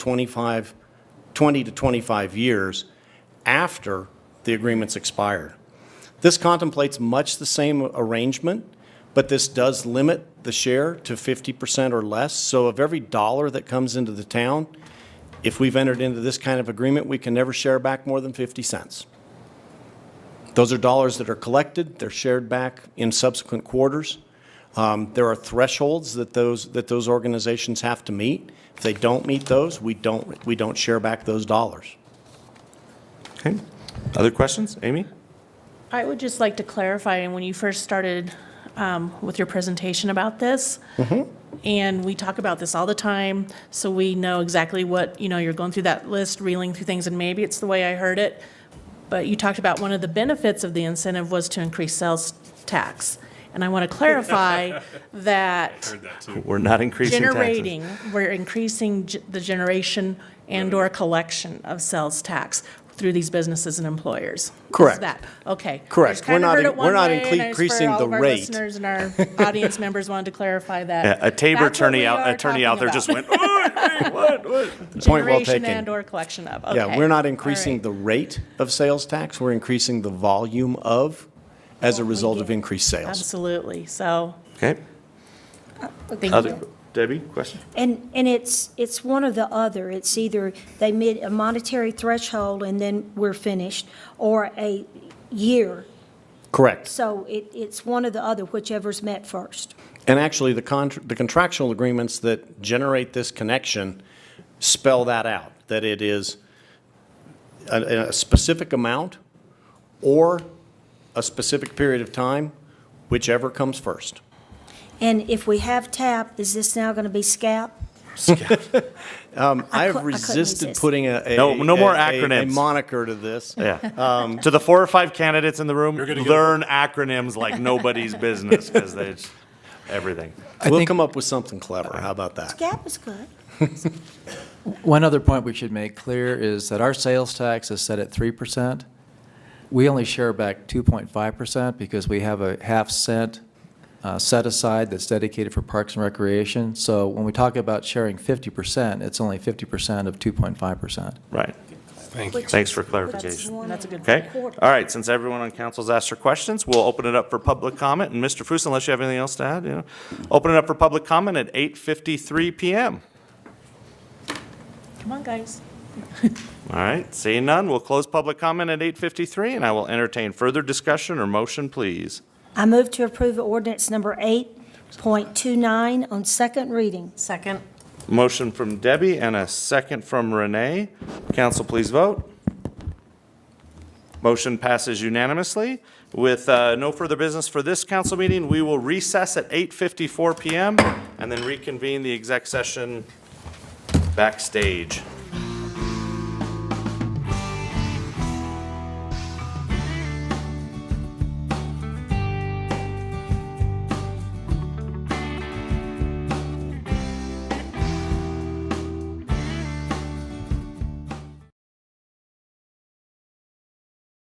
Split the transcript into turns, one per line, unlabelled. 25, 20 to 25 years after the agreement's expired. This contemplates much the same arrangement, but this does limit the share to 50% or less. So of every dollar that comes into the town, if we've entered into this kind of agreement, we can never share back more than 50 cents. Those are dollars that are collected, they're shared back in subsequent quarters. Um, There are thresholds that those, that those organizations have to meet. If they don't meet those, we don't, we don't share back those dollars.
Okay. Other questions? Amy?
I would just like to clarify, and when you first started um, with your presentation about this, and we talk about this all the time, so we know exactly what, you know, you're going through that list, reeling through things, and maybe it's the way I heard it, but you talked about one of the benefits of the incentive was to increase sales tax. And I want to clarify that
We're not increasing taxes.
generating, we're increasing ge- the generation and/or collection of sales tax through these businesses and employers. Is
Correct.
that- Okay.
Correct.
I just kinda
We're not
heard
in-
it one
we're not
way, and I just for
increasing
all
the
of our
rate.
Listeners and our audience members wanted to clarify
Yeah,
that.
a Tabor
That's what
attorney
we
out,
are
attorney out
talking
there just
about.
went, "Oi, hey, what, what?
Point well
Generation
taken.
and/or collection of, okay.
Yeah, we're
All
not
right.
increasing the rate of sales tax, we're increasing the volume of as a result of increased sales.
Absolutely, so,
Okay.
thank
Other,
you.
Debbie, question?
And, and it's, it's one or the other. It's either they meet a monetary threshold and then we're finished, or a year.
Correct.
So it, it's one or the other, whichever's met first.
And actually, the contr- the contractual agreements that generate this connection spell that out, that it is a, a specific amount or a specific period of time, whichever comes first.
And if we have TAP, is this now going to be SCAP?
I
cou-
have
I couldn't
resisted
resist.
putting a. a-
No- no more
a- a- A
acronyms.
moniker to this.
Yeah. Um, To the four or five candidates in the room,
gonna get-
learn acronyms like nobody's business because they, just- everything.
We'll come up with something clever, how about that?
SCAP is good.
One other point we should make clear is that our sales tax is set at three percent. We only share back two point five percent because we have a half cent uh, set aside that's dedicated for parks and recreation. So when we talk about sharing fifty percent, it's only fifty percent of two point five percent.
Right.
Thank
you.
Thanks for
That's
clarification.
one
That's a good
Okay.
quarter.
All right. Since everyone on council's asked their questions, we'll open it up for public comment. And Mr. Fuss, unless you have anything else to add, you know, open it up for public comment at 8:53 PM.
Come on, guys.
All right. Seeing none, we'll close public comment at 8:53 and I will entertain further discussion or motion, please.
I move to approve ordinance number 8.29 on second reading.
Second.
Motion from Debbie and a second from Renee. Council, please vote. Motion passes unanimously. With uh, no further business for this council meeting, we will recess at 8:54 PM and then reconvene the exec session backstage.